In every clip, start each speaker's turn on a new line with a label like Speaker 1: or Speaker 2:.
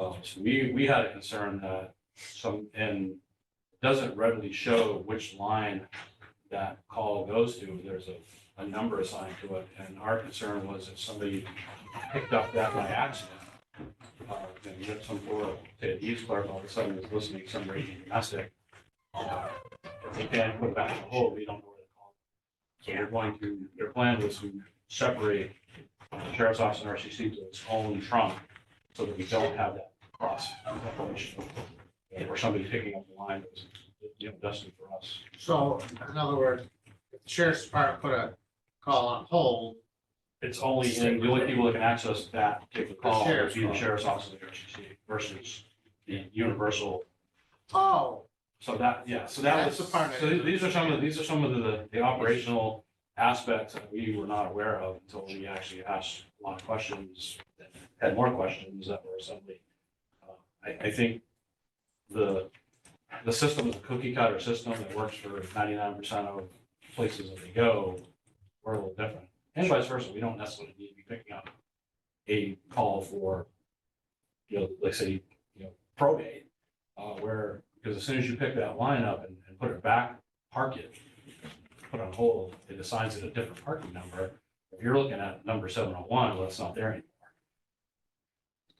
Speaker 1: So we, we had a concern that some, and it doesn't readily show which line that call goes to. There's a, a number assigned to it. And our concern was if somebody picked up that by accident, uh, and you had some poor, say, Eve's clerk all of a sudden is listening to some raging domestic. uh, If they can't put it back in the hole, we don't know where to call. So they're going to, their plan was to separate the sheriff's office and RCC to its own trunk so that we don't have that cross separation. Or somebody picking up the line that was, you know, destined for us.
Speaker 2: So in other words, if the sheriff's department put a call on hold,
Speaker 1: It's only, in- the only people that can access that particular call would be the sheriff's office and the RCC versus the universal.
Speaker 2: oh,
Speaker 1: So that, yeah, so that was,
Speaker 2: That's the part I-
Speaker 1: so th- these are some of, these are some of the, the operational aspects that we were not aware of until we actually asked a lot of questions, had more questions that were suddenly. uh, I, I think the, the system is a cookie cutter system that works for ninety-nine percent of places that we go. We're a little different, and vice versa, we don't necessarily need to be picking up a call for, you know, let's say, you know, probate uh, where, because as soon as you pick that line up and, and put it back, park it, put on hold, it assigns it a different parking number. If you're looking at number seven oh one, well, it's not there anymore.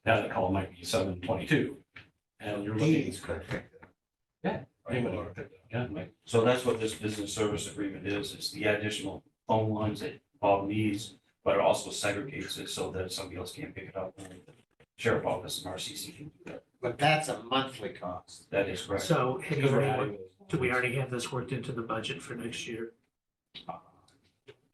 Speaker 1: Now that call might be seven twenty-two, and you're looking.
Speaker 3: Deeds could pick that.
Speaker 1: Yeah. Anybody can pick that, yeah, it might-
Speaker 4: So that's what this business service agreement is, is the additional phone lines that Bob needs, but it also segregates it so that somebody else can't pick it up. and the Sheriff office and RCC can do that.
Speaker 3: But that's a monthly cost.
Speaker 4: That is correct.
Speaker 5: So have you
Speaker 1: because
Speaker 5: already
Speaker 1: we're
Speaker 5: worked-
Speaker 1: adding those
Speaker 5: do we
Speaker 1: lines.
Speaker 5: already have this worked into the budget for next year?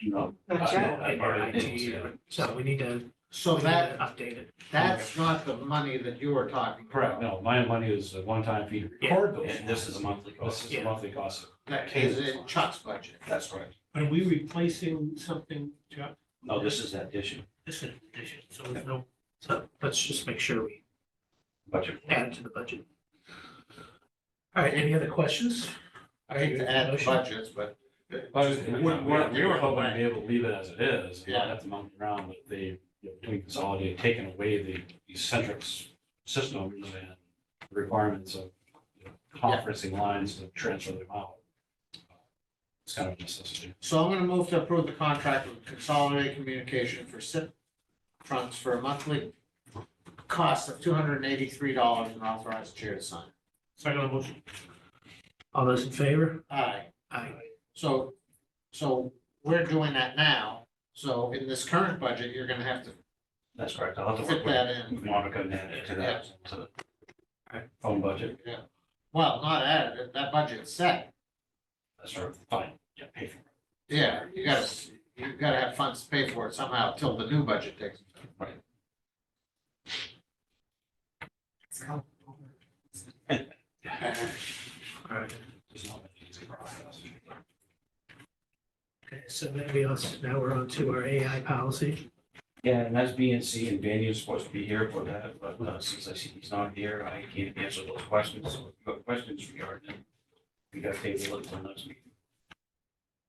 Speaker 4: No.
Speaker 5: So,
Speaker 4: yet.
Speaker 5: in our IT year. So we need to,
Speaker 2: so
Speaker 5: we need
Speaker 2: that,
Speaker 5: to update it.
Speaker 2: that's not the money that you were talking about.
Speaker 1: Correct, no, my money is a one-time fee to
Speaker 5: Yeah,
Speaker 1: record those.
Speaker 4: And this is a monthly
Speaker 1: This
Speaker 4: cost.
Speaker 1: is a
Speaker 5: Yeah.
Speaker 1: monthly cost.
Speaker 2: That is in Chuck's budget.
Speaker 4: That's correct.
Speaker 6: Are we replacing something, Chuck?
Speaker 4: No, this is an addition.
Speaker 5: This is an addition, so there's no, so let's just make sure we
Speaker 4: Budget.
Speaker 5: add it to the budget. All right, any other questions?
Speaker 2: I hate to add budgets, but
Speaker 1: Well, we we were, we were hoping to
Speaker 2: Right.
Speaker 1: be able to leave it as it is, and not
Speaker 2: Yeah.
Speaker 1: have to mount around, but they, you know, between consolidated, taken away the eccentric systems and requirements of you know, conferencing lines to transfer them out. It's kind of a necessity.
Speaker 2: So I'm gonna move to approve the contract with Consolidated Communication for SIP funds for a monthly cost of two hundred and eighty-three dollars and authorize chair to sign.
Speaker 6: Second motion.
Speaker 5: All those in favor?
Speaker 2: Aye.
Speaker 5: Aye.
Speaker 2: So, so we're doing that now, so in this current budget, you're gonna have to
Speaker 4: That's correct. I'll have to
Speaker 2: fit
Speaker 4: work
Speaker 2: that in.
Speaker 4: with Monica and add it to that, to the
Speaker 5: Alright.
Speaker 4: phone budget.
Speaker 2: Well, not added, that- that budget's set,
Speaker 4: That's right.
Speaker 1: Fine, yeah, pay for it.
Speaker 2: yeah, you gotta, you gotta have funds to pay for it somehow till the new budget takes.
Speaker 5: All right,
Speaker 1: It's not an easy process.
Speaker 5: okay, so maybe us, now we're on to our AI policy.
Speaker 4: Yeah, and that's B and C, and Danny is supposed to be here for that, but uh, since I see he's not here, I can't answer those questions. So if you have questions regarding it, we got to table it until next meeting.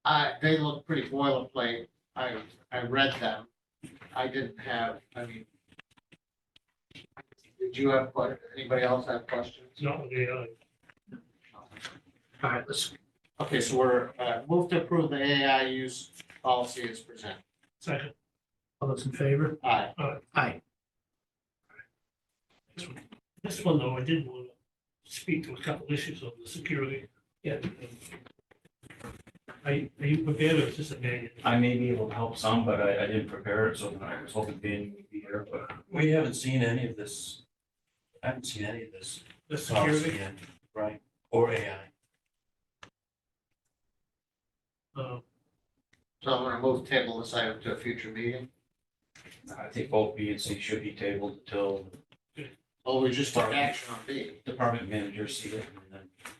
Speaker 2: I, they look pretty boilerplate, I, I read them, I didn't have, I mean. Did you have, que- anybody else have questions?
Speaker 6: No, the, uh,
Speaker 5: All right, let's,
Speaker 2: Okay, so we're, uh, move to approve the AI use policy as presented,
Speaker 6: second,
Speaker 5: all those in favor?
Speaker 2: aye.
Speaker 5: Aye.
Speaker 6: this one though, I did want to speak to a couple issues of the security. Yeah. Are you, are you prepared or is this a bad?
Speaker 4: I may be able to help some, but I, I didn't prepare it, so I was hoping Danny would be here, but we haven't seen any of this. I haven't seen any of this.
Speaker 6: The
Speaker 4: policy
Speaker 6: security,
Speaker 4: yet, Right, or AI.
Speaker 6: uh,
Speaker 2: So I'm gonna move table this item to a future meeting,
Speaker 4: I think both B and C should be tabled until
Speaker 2: Oh, we just took action on B.
Speaker 4: department managers see it, and then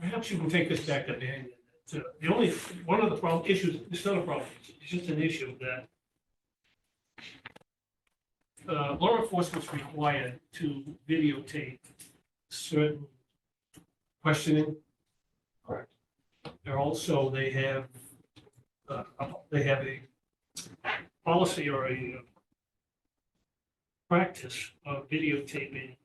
Speaker 6: perhaps you can take this back to Dan. So The only, one of the problem, issues, it's not a problem, it's just an issue that uh, law enforcement's required to videotape certain questioning.
Speaker 4: Correct.
Speaker 6: They're also, they have, uh, they have a policy or a uh, practice of videotaping